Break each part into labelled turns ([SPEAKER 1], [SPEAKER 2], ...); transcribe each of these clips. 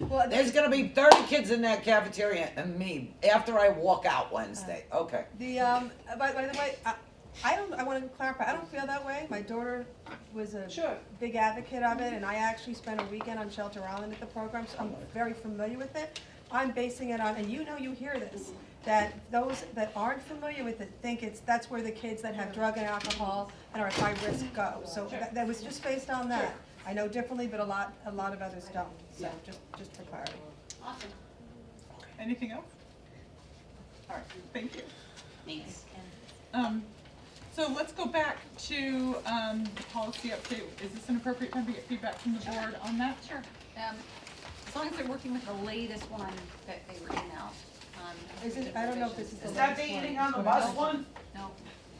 [SPEAKER 1] Well,
[SPEAKER 2] There's gonna be thirty kids in that cafeteria and me after I walk out Wednesday. Okay.
[SPEAKER 1] The, um, by, by the way, I, I don't, I wanna clarify, I don't feel that way, my daughter was a
[SPEAKER 3] Sure.
[SPEAKER 1] big advocate of it, and I actually spent a weekend on Shelter Island at the program, so I'm very familiar with it. I'm basing it on, and you know, you hear this, that those that aren't familiar with it think it's, that's where the kids that have drug and alcohol and are at high risk go, so that, that was just based on that. I know differently, but a lot, a lot of others don't, so just, just for clarity.
[SPEAKER 3] Awesome.
[SPEAKER 4] Anything else? All right, thank you.
[SPEAKER 3] Thanks.
[SPEAKER 4] Um, so let's go back to, um, the policy update. Is this an appropriate time to get feedback from the board on that?
[SPEAKER 3] Sure. Um, as long as they're working with the latest one that they were in out. um,
[SPEAKER 1] Is it- I don't know if this is the
[SPEAKER 3] revisions.
[SPEAKER 1] latest
[SPEAKER 5] the eating on the bus one?
[SPEAKER 3] No,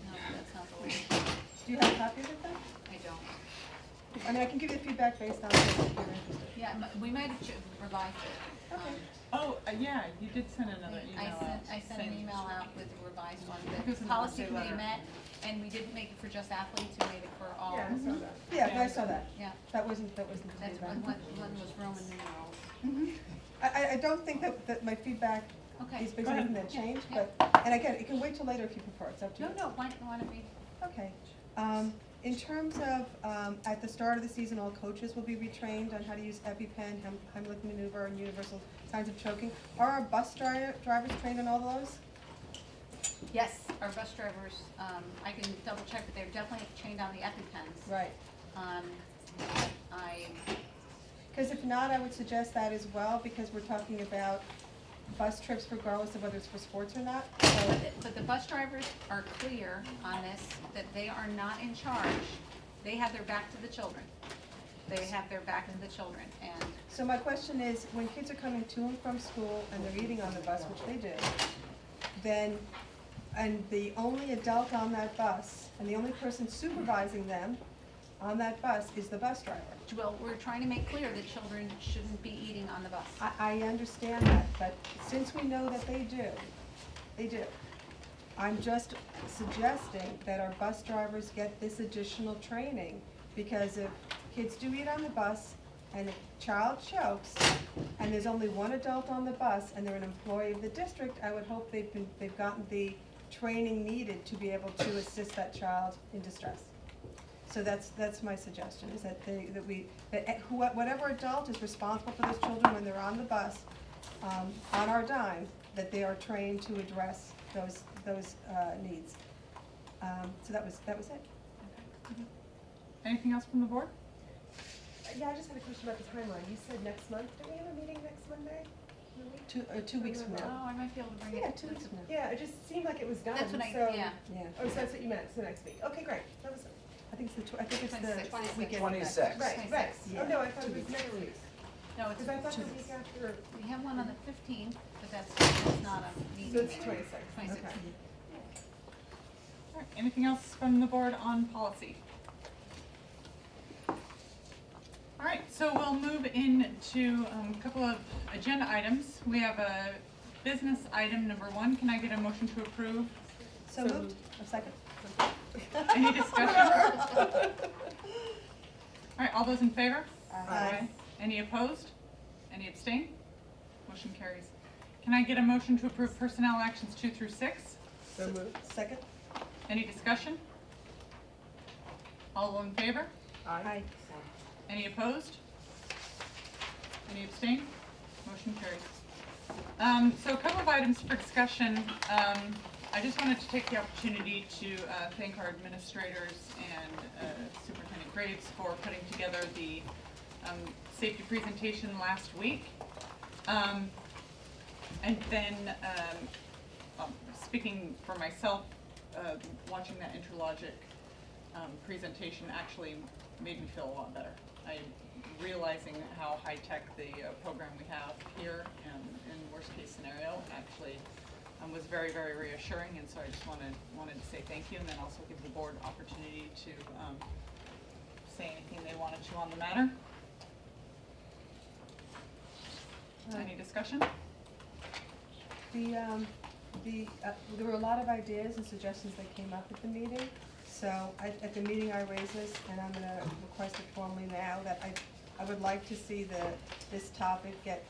[SPEAKER 3] no, that's not the latest. one.
[SPEAKER 1] Do you have copies of them?
[SPEAKER 3] I don't.
[SPEAKER 1] I mean, I can give you feedback based on this if you're interested.
[SPEAKER 3] Yeah, m- we might have ch- revised it. Um,
[SPEAKER 1] Okay.
[SPEAKER 4] Oh, uh, yeah, you did send another email
[SPEAKER 3] I
[SPEAKER 4] out.
[SPEAKER 3] sent, I sent an
[SPEAKER 4] saying-
[SPEAKER 3] email out with a revised one,
[SPEAKER 4] Who's
[SPEAKER 3] the
[SPEAKER 4] in the
[SPEAKER 3] policy
[SPEAKER 4] birthday
[SPEAKER 3] committee
[SPEAKER 4] letter?
[SPEAKER 3] met, and we didn't make it for just athletes, we made it for all.
[SPEAKER 1] Yeah, I saw that. Yeah, I saw that.
[SPEAKER 3] Yeah,
[SPEAKER 1] That wasn't, that wasn't the
[SPEAKER 3] that's one,
[SPEAKER 1] feedback.
[SPEAKER 3] one one was Roman numerals.
[SPEAKER 1] I, I, I don't think that, that my feedback
[SPEAKER 3] Okay.
[SPEAKER 1] is because of that change, but, and again, it can wait till later if you prefer, it's up to you.
[SPEAKER 3] No, no, why, why don't we,
[SPEAKER 1] Okay. Um, in terms of, um, at the start of the season, all coaches will be retrained on how to use EpiPen, Heim- Heimlich maneuver, and universal signs of choking. Are our bus dri- drivers trained on all those?
[SPEAKER 3] yes, our bus drivers, um, I can double check, but they're definitely trained on the EpiPens.
[SPEAKER 1] Right.
[SPEAKER 3] Um, I,
[SPEAKER 1] Because if not, I would suggest that as well, because we're talking about bus trips regardless of whether it's for sports or not, so.
[SPEAKER 3] but, the- but the bus drivers are clear on this, that they are not in charge. They have their back to the children. They have their back to the children, and
[SPEAKER 1] So my question is, when kids are coming to and from school and they're eating on the bus, which they do, then, and the only adult on that bus, and the only person supervising them on that bus is the bus driver.
[SPEAKER 3] Well, we're trying to make clear that children shouldn't be eating on the bus.
[SPEAKER 1] I, I understand that, but since we know that they do, they do, I'm just suggesting that our bus drivers get this additional training, because if kids do eat on the bus, and a child chokes, and there's only one adult on the bus, and they're an employee of the district, I would hope they've been, they've gotten the training needed to be able to assist that child in distress. So that's, that's my suggestion, is that they, that we, that who- whatever adult is responsible for those children when they're on the bus, um, on our dime, that they are trained to address those, those, uh, needs. Um, so that was, that was it.
[SPEAKER 4] Anything else from the board?
[SPEAKER 6] Yeah, I just had a question about the timeline. You said next month. Do we have a meeting next Monday? In a week?
[SPEAKER 1] Two, uh, two weeks from
[SPEAKER 3] Oh,
[SPEAKER 1] now.
[SPEAKER 3] I might be able to bring it.
[SPEAKER 1] Yeah, two weeks from now,
[SPEAKER 6] Yeah, it just seemed like it was done.
[SPEAKER 3] That's what I,
[SPEAKER 6] so-
[SPEAKER 3] yeah,
[SPEAKER 1] yeah.
[SPEAKER 6] Oh, so that's what you meant. So next week. Okay, great. That was
[SPEAKER 1] I think it's the tw- I think it's
[SPEAKER 3] Twenty-six.
[SPEAKER 1] the
[SPEAKER 3] Twenty-six.
[SPEAKER 1] weekend.
[SPEAKER 4] Twenty-six.
[SPEAKER 6] right, right.
[SPEAKER 1] Yeah.
[SPEAKER 6] Oh no, I thought
[SPEAKER 1] Two
[SPEAKER 6] it was
[SPEAKER 1] weeks.
[SPEAKER 6] next week.
[SPEAKER 3] no, it's,
[SPEAKER 6] Because I thought the
[SPEAKER 1] Two
[SPEAKER 6] week after.
[SPEAKER 3] we have one on the fifteenth, but that's, that's not a meeting.
[SPEAKER 6] So it's 26.
[SPEAKER 3] Twenty-six.
[SPEAKER 1] Okay.
[SPEAKER 4] All right, anything else from the board on policy? All right, so we'll move into um, a couple of agenda items. We have a business item number one. Can I get a motion to approve?
[SPEAKER 1] So moved, a second?
[SPEAKER 4] Any discussion? All right, all those in favor? Any opposed? Any abstain? Motion carries. Can I get a motion to approve personnel actions two through six?
[SPEAKER 6] So moved.
[SPEAKER 1] Second?
[SPEAKER 4] Any discussion? All in favor?
[SPEAKER 1] Aye.
[SPEAKER 4] Any opposed? Any abstain? Motion carries. Um, so a couple of items for discussion. Um, I just wanted to take the opportunity to, uh, thank our administrators and, uh, Superintendent Graves for putting together the, um, safety presentation last week. Um, and then, um, um, speaking for myself, uh, watching that Interlogic um, presentation actually made me feel a lot better. I realizing how high tech the uh, program we have here and in worst case scenario actually um, was very very reassuring. And so I just wanted wanted to say thank you, and then also give the board opportunity to um, say anything they wanted to on the matter. Any discussion?
[SPEAKER 1] The, um, the, uh, there were a lot of ideas and suggestions that came up at the meeting. So I, at the meeting, I raised this, and I'm gonna request it formally now, that I, I would like to see the, this topic get